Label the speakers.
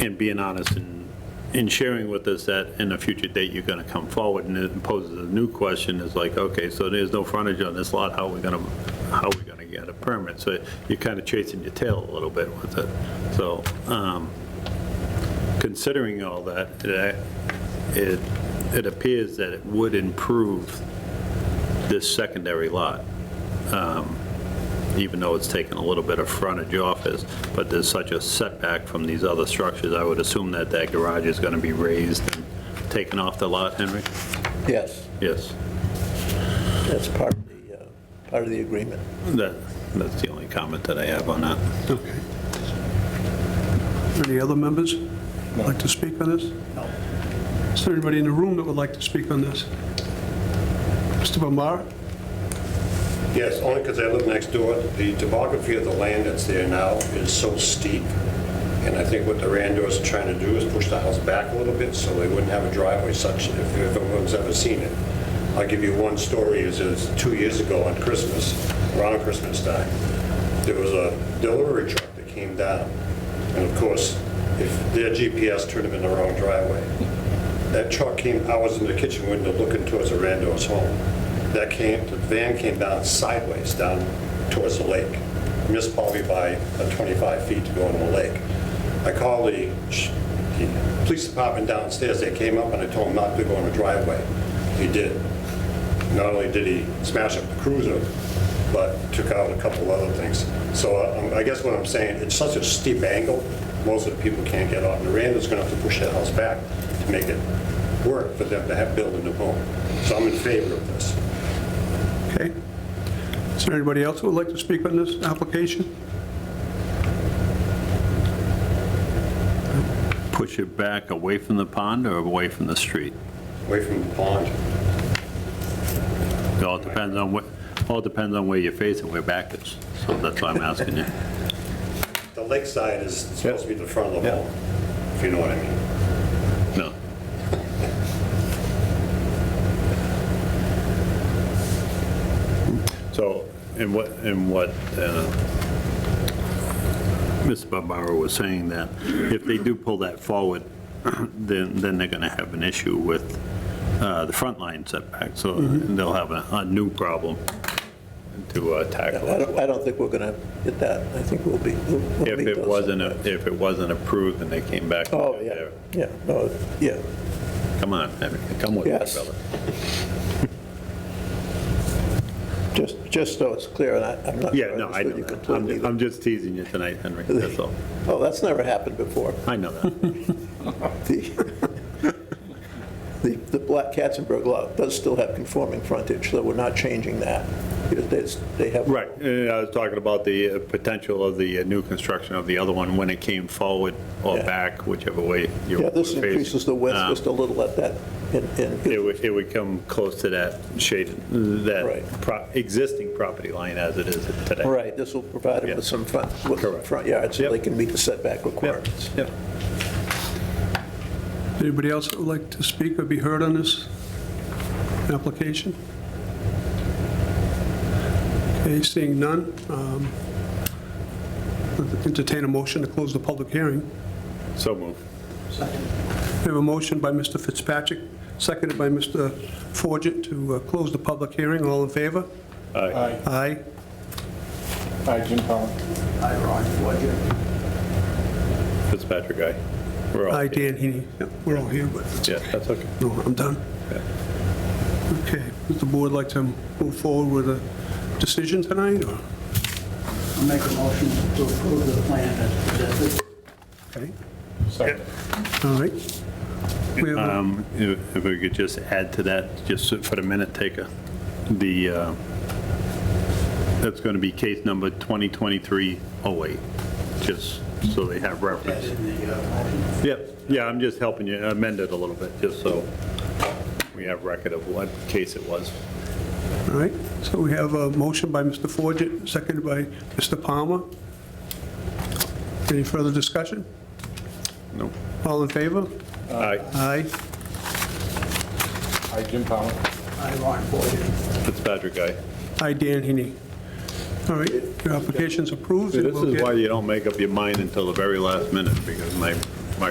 Speaker 1: and being honest and, and sharing with us that in a future date, you're going to come forward, and it poses a new question, is like, okay, so there's no frontage on this lot, how are we going to, how are we going to get a permit? So you're kind of chasing your tail a little bit with it. So um, considering all that, it- it, it appears that it would improve this secondary lot even though it's taken a little bit of frontage off us, but there's such a setback from these other structures, I would assume that that garage is going to be raised and taken off the lot, Henry?
Speaker 2: Yes,
Speaker 1: Yes,
Speaker 2: that's part of the, uh, part of the agreement.
Speaker 1: that, that's the only comment that I have on that.
Speaker 3: Okay. Any other members like to speak on this? No. Is there anybody in the room that would like to speak on this? Mr. Bombara?
Speaker 4: Yes, only because I live next door. The topography of the land that's there now is so steep, and I think what the Randors are trying to do is push the house back a little bit so they wouldn't have a driveway such, if if anyone's ever seen it. I'll give you one story, it was two years ago on Christmas, around Christmas time, there was a delivery truck that came down, and of course, if their GPS turned them in the wrong driveway, that truck came, I was in the kitchen window looking towards the Randall's home. That came, the van came down sideways down towards the lake. Missed probably by uh, 25 feet to go in the lake. I called the, sh- the police department downstairs. They came up and I told them not to go in the driveway. He did. Not only did he smash up the cruiser, but took out a couple other things. So uh, I guess what I'm saying, it's such a steep angle, most of the people can't get off. Miranda's going to have to push that house back to make it work for them to have, build a new home. So I'm in favor of this.
Speaker 3: Okay. Is there anybody else who would like to speak on this application?
Speaker 1: Push it back away from the pond or away from the street?
Speaker 4: Away from the pond.
Speaker 1: It all depends on what, all depends on where you're facing, where back is, so that's why I'm asking you.
Speaker 4: The lakeside is supposed to be the front of the
Speaker 2: Yeah.
Speaker 4: home, if you know what I mean.
Speaker 1: No. So, and what, and what uh, Mr. Barbaro was saying, that if they do pull that forward, then, then they're going to have an issue with uh, the front line setback, so
Speaker 2: Mm-hmm.
Speaker 1: they'll have a, a new problem to uh,
Speaker 2: I
Speaker 1: tackle.
Speaker 2: don't, I don't think we're gonna hit that. I think we'll be. we'll- we'll
Speaker 1: If
Speaker 2: meet
Speaker 1: it
Speaker 2: those.
Speaker 1: wasn't, a- if it wasn't approved and they came back. and
Speaker 2: Oh, yeah,
Speaker 1: they're-
Speaker 2: yeah, no, yeah.
Speaker 1: Come on, Henry, come with me,
Speaker 2: Yes.
Speaker 1: brother.
Speaker 2: Just, just so it's clear, and I, I'm not.
Speaker 1: Yeah,
Speaker 2: sure
Speaker 1: no, I
Speaker 2: understood
Speaker 1: know
Speaker 2: you
Speaker 1: that.
Speaker 2: completely.
Speaker 1: I'm- I'm just teasing you tonight, Henry, that's all.
Speaker 2: Oh, that's never happened before.
Speaker 1: I know that.
Speaker 2: The, the the Black Katzenberg lot does still have conforming frontage, so we're not changing that. It- it's- They have.
Speaker 1: Right, uh, I was talking about the uh, potential of the uh, new construction of the other one when it came forward or
Speaker 2: Yeah.
Speaker 1: back, whichever way you
Speaker 2: Yeah,
Speaker 1: were
Speaker 2: this increases the
Speaker 1: facing.
Speaker 2: width
Speaker 1: Uh,
Speaker 2: just a little at that, and- and
Speaker 1: It would, it would come close to that shaded, that
Speaker 2: Right.
Speaker 1: pro- existing property line as it is today.
Speaker 2: Right, this will provide them with
Speaker 1: Yeah.
Speaker 2: some front, with some
Speaker 1: Correct.
Speaker 2: front yards, so they
Speaker 1: Yep.
Speaker 2: can meet the setback
Speaker 1: Yep,
Speaker 2: requirements.
Speaker 1: yep.
Speaker 3: Anybody else that would like to speak or be heard on this application? Okay, seeing none, um, entertain a motion to close the public hearing.
Speaker 1: So move.
Speaker 3: We have a motion by Mr. Fitzpatrick, seconded by Mr. Forget to uh, close the public hearing. All in favor?
Speaker 1: Aye.
Speaker 3: Aye.
Speaker 5: Hi, Jim Collins.
Speaker 1: Fitzpatrick, aye. We're all
Speaker 3: Aye,
Speaker 1: here.
Speaker 3: Dan Heaney. Yep, We're all here, but it's-
Speaker 1: Yeah, that's okay.
Speaker 3: no, I'm done. Okay, does the board like to move forward with a decision tonight, or?
Speaker 6: I'll make a motion to approve the plan as presented.
Speaker 3: Okay,
Speaker 5: Second.
Speaker 3: all right. We have a-
Speaker 1: Um, If if we could just add to that, just for the minute taker, the, uh, that's going to be case number 2023-08, just so they have reference.
Speaker 6: in the uh, motion.
Speaker 1: Yep, yeah, I'm just helping you amend it a little bit, just so we have record of what case it was.
Speaker 3: All right, so we have a motion by Mr. Forget, seconded by Mr. Palmer. Any further discussion?
Speaker 1: No.
Speaker 3: All in favor?
Speaker 1: Aye,
Speaker 3: Aye.
Speaker 5: Hi, Jim Collins.
Speaker 6: I, Ron Forget.
Speaker 1: Fitzpatrick, aye.
Speaker 3: Aye, Dan Heaney. All right, your application's approved. and
Speaker 1: This
Speaker 3: we'll
Speaker 1: is
Speaker 3: get-
Speaker 1: why you don't make up your mind until the very last minute, because my